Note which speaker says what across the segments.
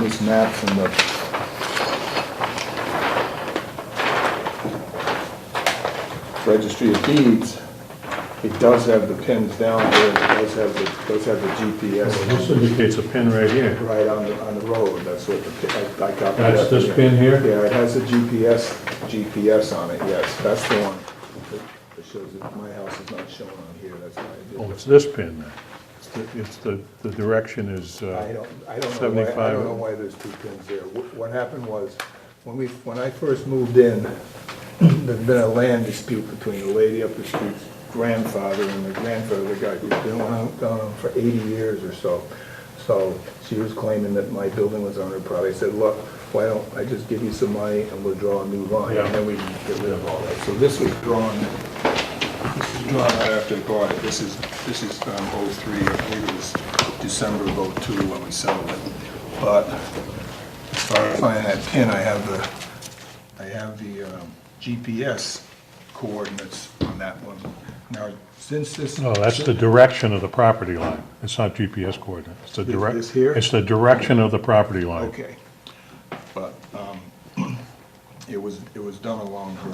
Speaker 1: these maps and the. Registry of Deeds, it does have the pins down there, it does have the, does have the
Speaker 2: This
Speaker 1: GPS
Speaker 2: indicates a pin right here.
Speaker 1: right on the, on the road, that's what the, pi- I I got. that.
Speaker 2: That's this pin here?
Speaker 1: Yeah, it has a GPS, GPS on it, yes, that's the one that- that shows that my house is not shown on here, that's why I did
Speaker 2: Oh,
Speaker 1: it.
Speaker 2: it's this pin then. It's the- It's the, the direction is,
Speaker 1: I
Speaker 2: uh,
Speaker 1: don't, I don't know why, I
Speaker 2: 75.
Speaker 1: don't know why there's two pins there. Wh- What happened was, when we, when I first moved in, there'd been a land dispute between the lady up the street's grandfather and the grandfather, of the guy who's been on- gone on for eighty years or so. So she was claiming that my building was on her property. I said, look, why don't I just give you some money and we'll draw a new line, and then we can get rid of all that. So this was drawn this is drawn out after I bought it. This is, this is um, 03, I believe it was December of 02 when we settled it. But as far as finding that pin, I have the, I have the um, GPS coordinates on that one. Now, since this.
Speaker 2: no, Oh, that's the direction of the property line. It's not GPS coordinate. It's the
Speaker 1: This-
Speaker 2: direct.
Speaker 1: this here?
Speaker 2: It's the direction of the property line.
Speaker 1: Okay. But um, it was, it was done along her,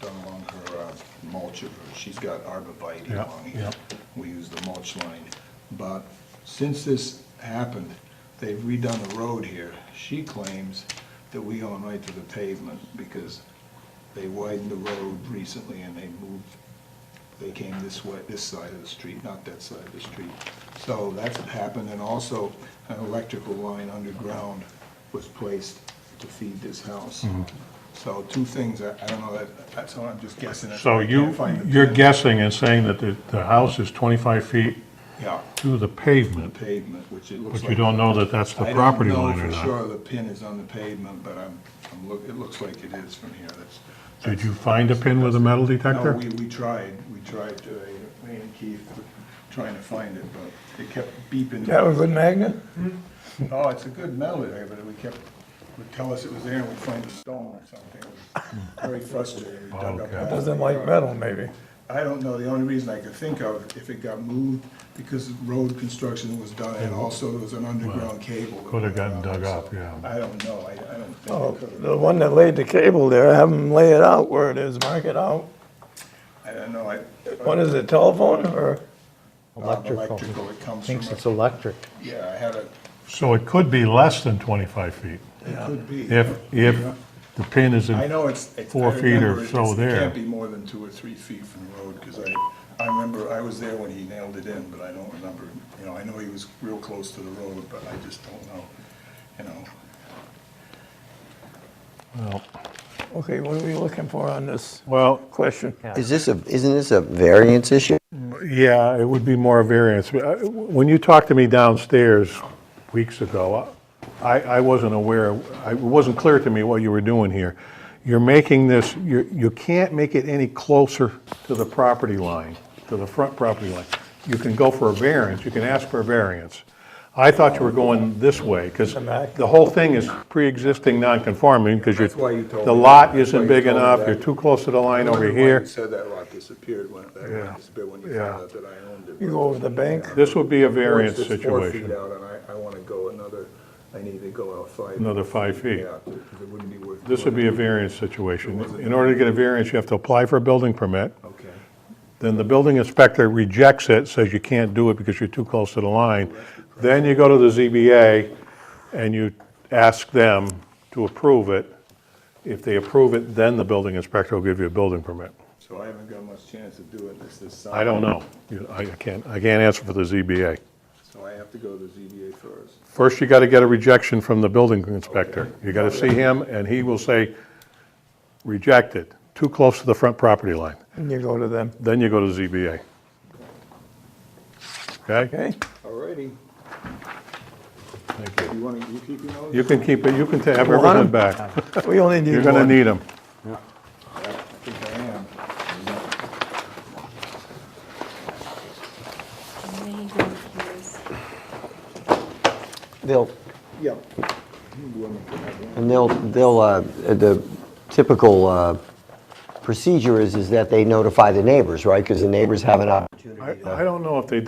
Speaker 1: done along her uh, mulch, of her- she's got arborvitae
Speaker 2: Yeah,
Speaker 1: along here.
Speaker 2: yeah.
Speaker 1: We use the mulch line. But since this happened, they've redone the road here. She claims that we own right to the pavement because they widened the road recently and they moved, they came this way, this side of the street, not that side of the street. So that's what happened, and also an electrical line underground was placed to feed this house.
Speaker 2: Mm-hmm.
Speaker 1: So two things, I I don't know, that- that's all, I'm just guessing. that's
Speaker 2: So
Speaker 1: why I
Speaker 2: you,
Speaker 1: can't find the
Speaker 2: you're
Speaker 1: pin.
Speaker 2: guessing and saying that the, the house is 25 feet
Speaker 1: Yeah,
Speaker 2: to the pavement,
Speaker 1: pavement, which it looks like.
Speaker 2: but you don't know that that's the property line or
Speaker 1: I don't know
Speaker 2: not.
Speaker 1: for sure the pin is on the pavement, but I'm, I'm look, it looks like it is from here, that's.
Speaker 2: Did you find a pin with a metal
Speaker 1: No,
Speaker 2: detector?
Speaker 1: we, we tried, we tried, to, uh, me and Keith, were trying to find it, but it kept beeping.
Speaker 3: That was a magnet?
Speaker 1: Oh, it's a good metal there, but we kept, would tell us it was there, and we'd find a stone or something. It was Very frustrating. We dug up
Speaker 2: Okay.
Speaker 1: half
Speaker 3: Doesn't
Speaker 1: the
Speaker 3: like
Speaker 1: yard.
Speaker 3: metal, maybe.
Speaker 1: I don't know, the only reason I could think of, if it got moved, because road construction was done, and also there was an underground cable. that
Speaker 2: could
Speaker 1: went
Speaker 2: have gotten
Speaker 1: out,
Speaker 2: dug
Speaker 1: so
Speaker 2: up, yeah.
Speaker 1: I don't know, I, I don't think.
Speaker 3: Oh,
Speaker 1: it could've-
Speaker 3: the one that laid the cable there, have them lay it out where it is, mark it out.
Speaker 1: I don't know, I. uh,
Speaker 3: What is it, telephone or?
Speaker 4: Electrical.
Speaker 1: Electrical, it comes from,
Speaker 4: Thinks it's
Speaker 1: a-
Speaker 4: electric.
Speaker 1: yeah, I had a,
Speaker 2: So it could be less than 25 feet
Speaker 1: it could be.
Speaker 2: if, if the pin is in.
Speaker 1: I know it's. it's- I
Speaker 2: Four feet or
Speaker 1: remember it's-
Speaker 2: so
Speaker 1: It
Speaker 2: there.
Speaker 1: can't be more than two or three feet from the road, because I, I remember, I was there when he nailed it in, but I don't remember, you know, I know he was real close to the road, but I just don't know, you know.
Speaker 3: Okay, what are we looking for on this
Speaker 2: Well,
Speaker 3: question?
Speaker 5: Is this a, isn't this a variance issue?
Speaker 2: Yeah, it would be more variance. Uh, When you talked to me downstairs weeks ago, uh, I, I wasn't aware, I- it wasn't clear to me what you were doing here. You're making this, you you can't make it any closer to the property line, to the front property line. You can go for a variance, you can ask for a variance. I thought you were going this way, because
Speaker 3: back?
Speaker 2: the whole thing is pre-existing non-conforming, because
Speaker 1: That's why you told
Speaker 2: the
Speaker 1: me.
Speaker 2: lot
Speaker 1: That's why
Speaker 2: isn't
Speaker 1: you
Speaker 2: big
Speaker 1: told me
Speaker 2: enough,
Speaker 1: that.
Speaker 2: you're too close to the line
Speaker 1: I
Speaker 2: over
Speaker 1: wondered why
Speaker 2: here.
Speaker 1: you Said that lot disappeared when, that
Speaker 2: Yeah.
Speaker 1: lot disappeared when you
Speaker 2: Yeah.
Speaker 1: found out that I owned it.
Speaker 3: You go over the bank?
Speaker 2: This would be a variance
Speaker 1: It's Four feet
Speaker 2: situation.
Speaker 1: out, and I, I want to go another, I need to go out five.
Speaker 2: Another five feet.
Speaker 1: Yeah, because it wouldn't be worth.
Speaker 2: This would be a variance situation. In order to get a variance, you have to apply for a building permit.
Speaker 1: Okay,
Speaker 2: Then the building inspector rejects it, says you can't do it because you're too close to the line. Then you go to the ZBA and you ask them to approve it. If they approve it, then the building inspector will give you a building permit.
Speaker 1: so I haven't got much chance of doing this this summer.
Speaker 2: I don't know. You- I can't, I can't answer for the ZBA.
Speaker 1: So I have to go to the ZBA first.
Speaker 2: First, you got to get a rejection from the building inspector. You got to see him and he will say, reject it, too close to the front property line.
Speaker 3: And you go to them,
Speaker 2: Then you go to ZBA. Okay?
Speaker 3: okay?
Speaker 1: All righty,
Speaker 2: Thank you.
Speaker 1: you want to, you keep your notes?
Speaker 2: You can keep it, you can ta- have
Speaker 3: One.
Speaker 2: everything back.
Speaker 3: We only need
Speaker 2: You're
Speaker 3: one.
Speaker 2: gonna need them.
Speaker 1: I think I am.
Speaker 6: Many green peas.
Speaker 5: They'll,
Speaker 1: Yeah. You want me to have one?
Speaker 5: and they'll, they'll, uh, the typical uh, procedure is, is that they notify the neighbors, right? Because the neighbors have an opportunity
Speaker 2: I I don't know if they